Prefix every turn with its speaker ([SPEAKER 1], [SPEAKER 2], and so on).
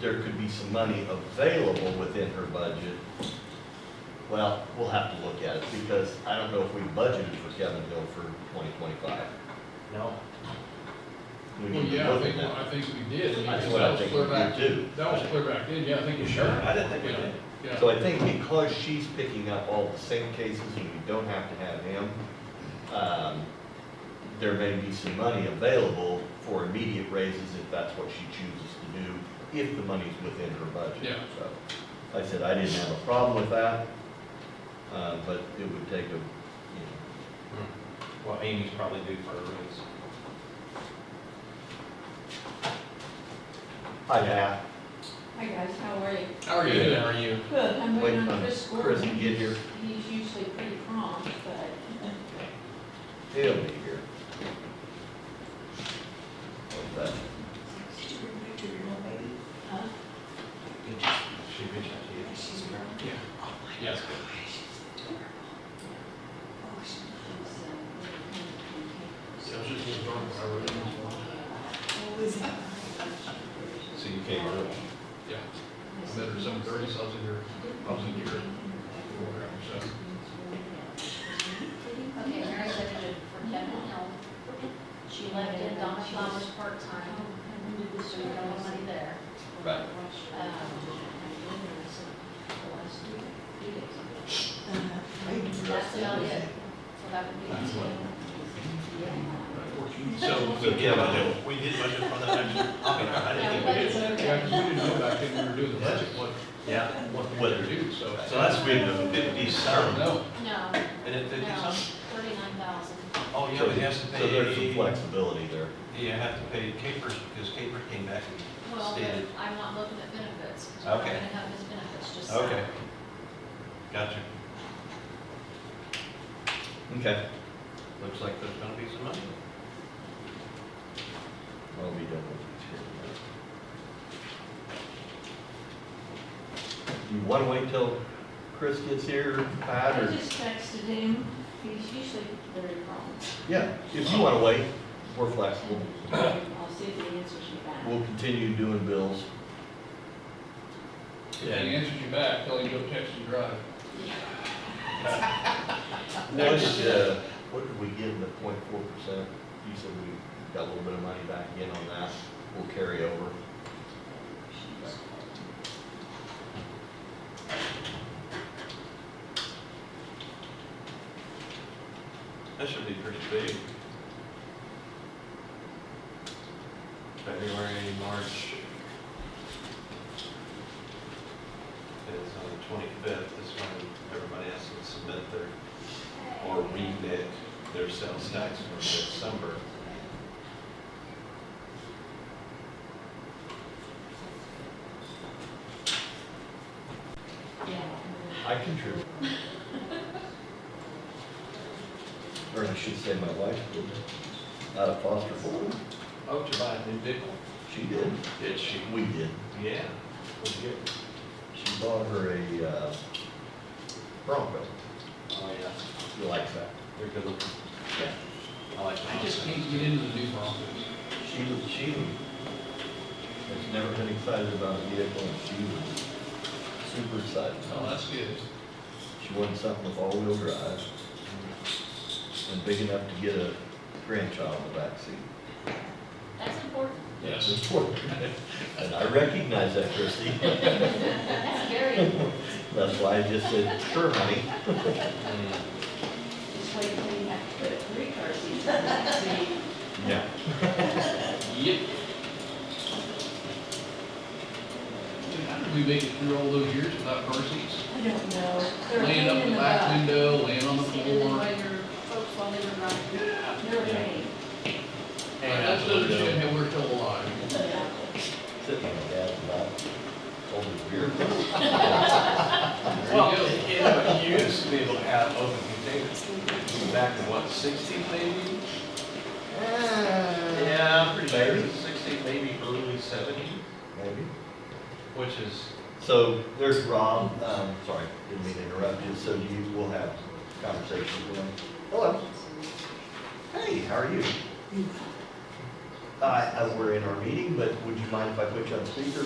[SPEAKER 1] there could be some money available within her budget. Well, we'll have to look at it, because I don't know if we budgeted for Kevin Hill for twenty twenty-five.
[SPEAKER 2] No,
[SPEAKER 1] We
[SPEAKER 3] Well,
[SPEAKER 1] need to
[SPEAKER 3] yeah, I
[SPEAKER 1] look at
[SPEAKER 3] think,
[SPEAKER 1] that.
[SPEAKER 3] I think we did. and
[SPEAKER 1] That's
[SPEAKER 3] because
[SPEAKER 1] what I
[SPEAKER 3] that was
[SPEAKER 1] think
[SPEAKER 3] clear
[SPEAKER 1] we
[SPEAKER 3] back-
[SPEAKER 1] did too.
[SPEAKER 3] That was clear back then, yeah, I think you should.
[SPEAKER 2] Sure, I didn't think we
[SPEAKER 3] Yeah,
[SPEAKER 2] did.
[SPEAKER 3] Yeah.
[SPEAKER 1] So I think because she's picking up all the same cases, and you don't have to have him, um, there may be some money available for immediate raises if that's what she chooses to do, if the money's within her budget.
[SPEAKER 3] Yeah.
[SPEAKER 1] So, I said I didn't have a problem with that, uh, but it would take a, you know,
[SPEAKER 4] Hmm.
[SPEAKER 2] well, Amy's probably due for a raise.
[SPEAKER 1] hi, Matt.
[SPEAKER 5] Hi guys, how are you?
[SPEAKER 3] How are you
[SPEAKER 2] Good, how
[SPEAKER 3] doing?
[SPEAKER 2] are you?
[SPEAKER 5] Good, I'm
[SPEAKER 1] Wait
[SPEAKER 5] waiting on
[SPEAKER 1] for
[SPEAKER 5] Chris
[SPEAKER 1] Chris to
[SPEAKER 5] Gordon.
[SPEAKER 1] get here.
[SPEAKER 5] He's usually pretty prompt, but
[SPEAKER 1] He'll be here. What's that?
[SPEAKER 6] Did you bring back to your old lady?
[SPEAKER 5] uh,
[SPEAKER 2] She reached out to you.
[SPEAKER 6] She's grown.
[SPEAKER 3] Yeah.
[SPEAKER 6] Oh my God,
[SPEAKER 3] Yes.
[SPEAKER 6] she's adorable. Oh, she's
[SPEAKER 5] he's,
[SPEAKER 3] Yeah,
[SPEAKER 5] uh,
[SPEAKER 3] I was just gonna talk about it.
[SPEAKER 6] always.
[SPEAKER 2] So you came early.
[SPEAKER 3] Yeah, I met her seven thirty, so I was in here, I was in here at four hours, so.
[SPEAKER 7] Okay, Mary said it for Kevin Hill. She left it Donna Flowers part-time, so we don't have money there.
[SPEAKER 1] Right.
[SPEAKER 7] That's about it. So that would be.
[SPEAKER 3] That's what-
[SPEAKER 7] Yeah.
[SPEAKER 3] So.
[SPEAKER 4] So, yeah, I know, we did budget for that actually, I mean, I didn't think we did.
[SPEAKER 3] Yeah, 'cause we didn't know back then when we were doing the budget, what,
[SPEAKER 4] Yeah.
[SPEAKER 3] what we were gonna do, so.
[SPEAKER 4] So that's been the fifty
[SPEAKER 3] I don't
[SPEAKER 4] some,
[SPEAKER 3] know.
[SPEAKER 7] No,
[SPEAKER 4] and it fifty
[SPEAKER 7] no,
[SPEAKER 4] some?
[SPEAKER 7] thirty-nine thousand.
[SPEAKER 4] Oh, yeah, but he has to
[SPEAKER 1] So there's some
[SPEAKER 4] pay,
[SPEAKER 1] flexibility there.
[SPEAKER 4] you have to pay capers, because caper came back and
[SPEAKER 7] Well,
[SPEAKER 4] stated.
[SPEAKER 7] but I'm not looking at benefits, because we're not
[SPEAKER 4] Okay.
[SPEAKER 7] gonna have his benefits, just.
[SPEAKER 4] Okay. Gotcha,
[SPEAKER 1] Okay.
[SPEAKER 4] looks like there's gonna be some money.
[SPEAKER 1] Well, we don't want to. You wanna wait till Chris gets here, Pat,
[SPEAKER 5] I
[SPEAKER 1] or?
[SPEAKER 5] just texted him, he's usually very prompt.
[SPEAKER 1] Yeah, if you wanna wait, we're flexible.
[SPEAKER 5] I'll see if he answers me back.
[SPEAKER 1] We'll continue doing bills.
[SPEAKER 3] If he answers you back, tell him go text and drive.
[SPEAKER 1] What, uh, what did we give him at point four percent? You said we got a little bit of money back in on that. We'll carry over.
[SPEAKER 4] That should be pretty big. February, March. It's on the twenty-fifth, is when everybody has to submit their, or remit their sales tax for December.
[SPEAKER 5] Yeah.
[SPEAKER 1] I contribute. Or I should say my wife did, out of foster home.
[SPEAKER 4] Oh, to buy a new vehicle?
[SPEAKER 1] She did.
[SPEAKER 4] Did she?
[SPEAKER 1] We did.
[SPEAKER 4] Yeah. What'd you get?
[SPEAKER 1] She bought her a uh, Bronco.
[SPEAKER 4] Oh, yeah.
[SPEAKER 1] She likes that.
[SPEAKER 4] They're good looking.
[SPEAKER 1] Yeah.
[SPEAKER 4] I like them.
[SPEAKER 3] I just can't get into the new Broncos.
[SPEAKER 1] She was, she was, has never been excited about a vehicle and she was super excited.
[SPEAKER 3] Oh, that's good.
[SPEAKER 1] She wanted something with all-wheel drive and big enough to get a grandchild in the backseat.
[SPEAKER 7] That's important.
[SPEAKER 3] Yes.
[SPEAKER 1] And I recognize that, Christie.
[SPEAKER 7] That's very important.
[SPEAKER 1] That's why I just said, sure, honey.
[SPEAKER 4] Mm.
[SPEAKER 5] Just wait till you have to put three cars in the backseat.
[SPEAKER 1] Yeah.
[SPEAKER 3] Yep. How did we make it through all those years without car seats?
[SPEAKER 5] I don't know. They're a
[SPEAKER 3] Laying
[SPEAKER 5] pain
[SPEAKER 3] up
[SPEAKER 5] in
[SPEAKER 3] the
[SPEAKER 5] the
[SPEAKER 3] back
[SPEAKER 5] butt.
[SPEAKER 3] window, laying on the
[SPEAKER 7] Standing in the
[SPEAKER 3] floor.
[SPEAKER 7] way your folks while they were running.
[SPEAKER 5] They're a pain.
[SPEAKER 3] That's understand how we're still alive.
[SPEAKER 5] Yeah.
[SPEAKER 1] Sitting on the dad's lap, holding his beer.
[SPEAKER 3] There
[SPEAKER 4] Well,
[SPEAKER 3] you go.
[SPEAKER 4] you know, you used to be able to have open containers, back in what, sixty maybe? Yeah, I'm pretty
[SPEAKER 1] Maybe.
[SPEAKER 4] sure, sixty, maybe early seventy,
[SPEAKER 1] Maybe.
[SPEAKER 4] which is,
[SPEAKER 1] So there's Rob, um, sorry, didn't mean to interrupt you, so you will have conversations with him. Hello. Hey, how are you? I, I, we're in our meeting, but would you mind if I put you on speaker?